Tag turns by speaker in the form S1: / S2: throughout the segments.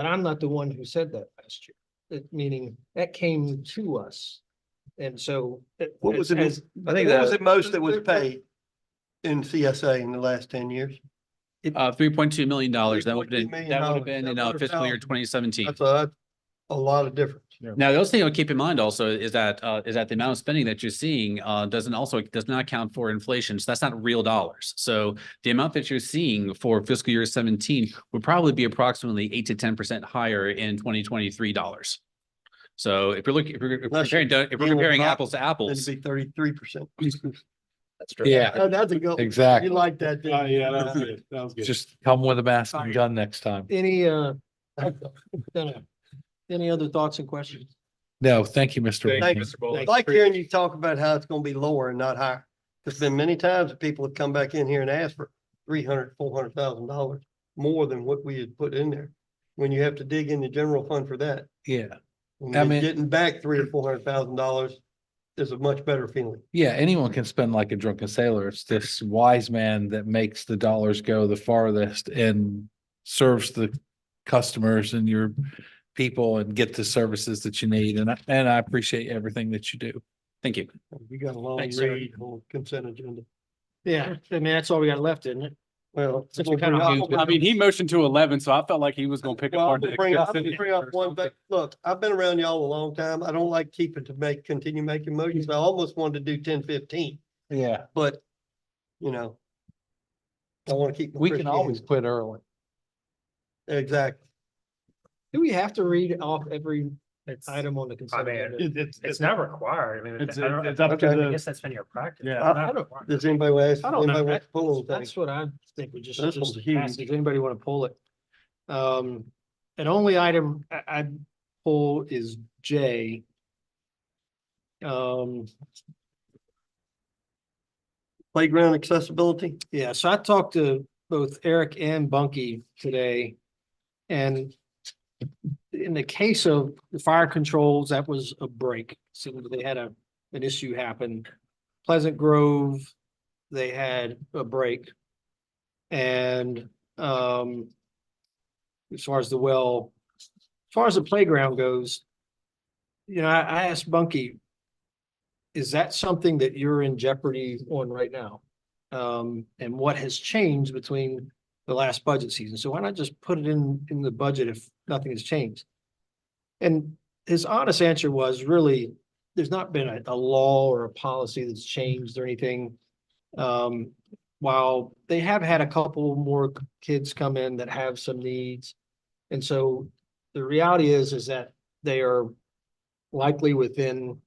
S1: And I'm not the one who said that last year, That meaning that came to us. And so. it-
S2: What was the
S1: as- uh,
S3: I think
S2: What was
S3: that,
S2: the most that was paid in CSA in the last ten years?
S3: uh, three point two million dollars, that would have
S2: $3.2
S3: been,
S2: million
S3: that would have been in uh,
S2: dollars. That
S3: fiscal year
S2: would've
S3: twenty seventeen.
S2: That's a, a lot of difference.
S3: Now, the other thing to keep in mind also is that, uh, is that the amount of spending that you're seeing, uh, doesn't also, does not account for inflation. So that's not real dollars. So the amount that you're seeing for fiscal year seventeen would probably be approximately eight to ten percent higher in twenty twenty-three dollars. So if you're looking, if we're if we're
S2: Unless you're
S3: comparing, if we're
S2: dealing with
S3: comparing
S2: not-
S3: apples to
S2: It'd
S3: apples,
S2: be thirty-three percent.
S1: That's true.
S4: Yeah,
S2: That's a good, you
S4: exactly.
S2: like that. didn't
S5: Oh,
S2: you?
S5: yeah, that was good. That was good.
S4: Just come with a mask and gun next time.
S1: Any, uh, dunno. any other thoughts and questions?
S4: No, thank you, Mr.
S2: Thank
S4: Winky.
S2: you. I Like hearing you talk about how it's gonna be lower and not higher. There's been many times that people have come back in here and asked for three hundred, four hundred thousand dollars more than what we had put in there. When you have to dig in the general fund for that.
S4: Yeah,
S2: and
S4: I mean-
S2: Getting back three or four hundred thousand dollars is a much better feeling.
S4: yeah, anyone can spend like a drunken sailor. It's this wise man that makes the dollars go the farthest and serves the customers and your people and get the services that you need. And I, and I appreciate everything that you do.
S3: thank you.
S2: We got a long
S3: Thanks, sir.
S2: read on consent agenda.
S1: Yeah, I mean, that's all we got left, isn't it?
S2: Well.
S1: Since we
S2: we'll
S1: kinda
S2: bring
S1: moved
S2: up-
S5: I mean, he motioned to eleven, so I felt like he was gonna pick
S2: Well,
S5: apart.
S2: I'll
S5: the
S2: bring up, I'll
S5: excessive-
S2: bring up one thing. Look, I've been around y'all a long time. I don't like keeping to make, continue making motions. I almost wanted to do ten fifteen,
S4: Yeah,
S2: but, you know. I want to keep. my
S4: we can always
S2: Christianity.
S4: quit early.
S2: Exactly.
S1: Do we have to read off every item on the consent?
S6: I mean,
S1: agenda?
S5: It- It's,
S6: It's not required. I mean,
S5: It's,
S6: I don't-
S5: it's up to
S2: Okay.
S6: I
S5: the,
S6: guess that's been your practice.
S5: Yeah.
S2: I-
S6: Not
S1: I don't-
S6: required.
S2: Does anybody want to ask,
S1: I don't
S2: anybody
S1: know.
S2: want to
S1: That-
S2: pull on
S1: That's
S2: things?
S1: what I think we just,
S2: This one's
S1: just ask,
S2: huge.
S1: does anybody want to pull it? Um, an only item I, I pull is J. Um,
S2: Playground accessibility?
S1: yeah, so I talked to both Eric and Bunky today. And in the case of the fire controls, that was a break. So they had a, an issue happen. Pleasant Grove, they had a break. And, um, as far as the well, as far as the playground goes, you know, I, I asked Bunky, is that something that you're in jeopardy on right now? Um, and what has changed between the last budget season? So why not just put it in, in the budget if nothing has changed? And his honest answer was really, there's not been a, a law or a policy that's changed or anything. Um, while they have had a couple more kids come in that have some needs. And so the reality is, is that they are likely within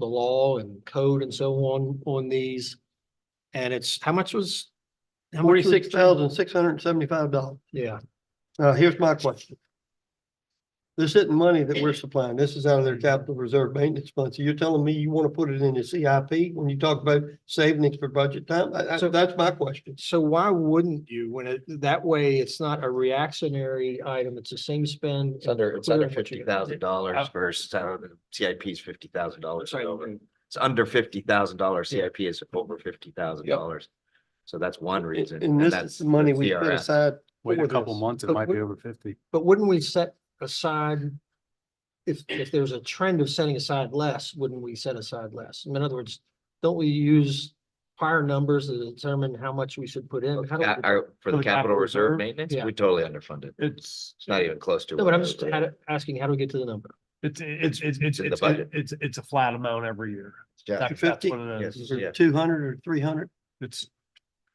S1: the law and code and so on, on these. And it's, how much was? how much was-
S2: Forty-six thousand, six hundred and seventy-five dollars.
S1: Yeah,
S2: Now, Uh, here's my question. This isn't money that we're supplying. This is out of their capital reserve maintenance fund. So you're telling me you want to put it in the CIP when you talk about savings for budget time? I- I-
S1: So-
S2: that's my question.
S1: so why wouldn't you, when it, that way, it's not a reactionary item, it's the same spend.
S7: It's under, it's
S1: Clear
S7: under
S1: what you're
S7: fifty
S1: doing.
S7: thousand
S1: Uh,
S7: dollars versus, I don't know, CIP is fifty thousand dollars.
S1: Sorry,
S7: It's under fifty thousand dollars. CIP is over fifty thousand dollars. So that's one reason.
S2: And this is
S7: that's
S2: the money we set
S7: CRS.
S2: aside.
S5: wait
S2: for
S5: a couple
S2: this.
S5: months, it
S1: But
S5: might
S1: we-
S5: be over fifty.
S1: But wouldn't we set aside? If, if there's a trend of setting aside less, wouldn't we set aside less? In other words, don't we use prior numbers to determine how much we should put in? How do we-
S7: Ca- our- For the capital reserve maintenance,
S1: Yeah.
S7: we totally underfunded.
S5: It's,
S7: It's not even close to.
S1: No,
S7: what
S1: but I'm
S7: it
S1: just
S7: was.
S1: had- asking, how do we get to the number?
S5: it's, it's, it's, it's,
S7: in the
S5: it's,
S7: budget.
S5: it's, it's a flat amount every year.
S7: Yeah,
S5: That- that's
S2: 50?
S5: what it is.
S7: Yes. Yeah.
S2: Or two hundred or three hundred?
S5: It's,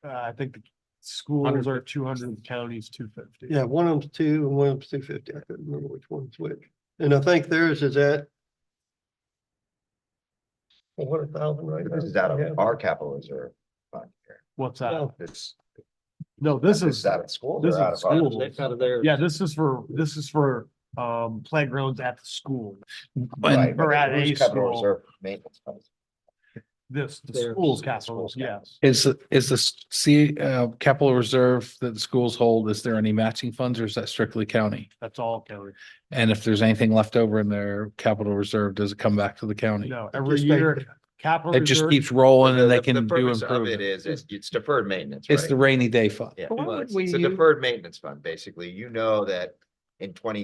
S5: uh, I think the schools are two hundred, counties two fifty.
S2: Yeah, one of them's two and one of them's two fifty. I couldn't remember which one's which. And I think theirs is at four hundred thousand right
S7: but
S2: now.
S7: This is out
S2: Yeah.
S7: of our capital reserve. fund here.
S5: What's that?
S2: No,
S7: This,
S5: No, this
S7: this
S5: is,
S7: is out of school.
S5: this is
S7: or out of our-
S5: school.
S1: That's out of there.
S5: yeah, this is for, this is for, um, playgrounds at the school.
S7: Right,
S4: And
S7: but
S5: we're at
S7: who's
S5: a
S7: capital
S5: school.
S7: reserve Maintenance. fund?
S5: This, the
S1: There.
S5: schools capitals, yes.
S4: is, the- is the s- C, uh, capital reserve that the schools hold, is there any matching funds or is that strictly county?
S5: That's all county.
S4: And if there's anything left over in their capital reserve, does it come back to the county?
S5: No, every
S2: just make-
S5: year, capital.
S4: It just
S5: reserve-
S4: keeps rolling
S7: The-
S4: and they
S7: the- the
S4: can do
S7: purpose of It
S4: improvement.
S7: is, it's it's deferred maintenance.
S4: It's
S7: right?
S4: the rainy day fund.
S7: Yeah,
S1: But why
S7: well,
S1: would
S7: it's
S1: we
S7: it's a
S1: use-
S7: deferred maintenance fund, basically. You know that in twenty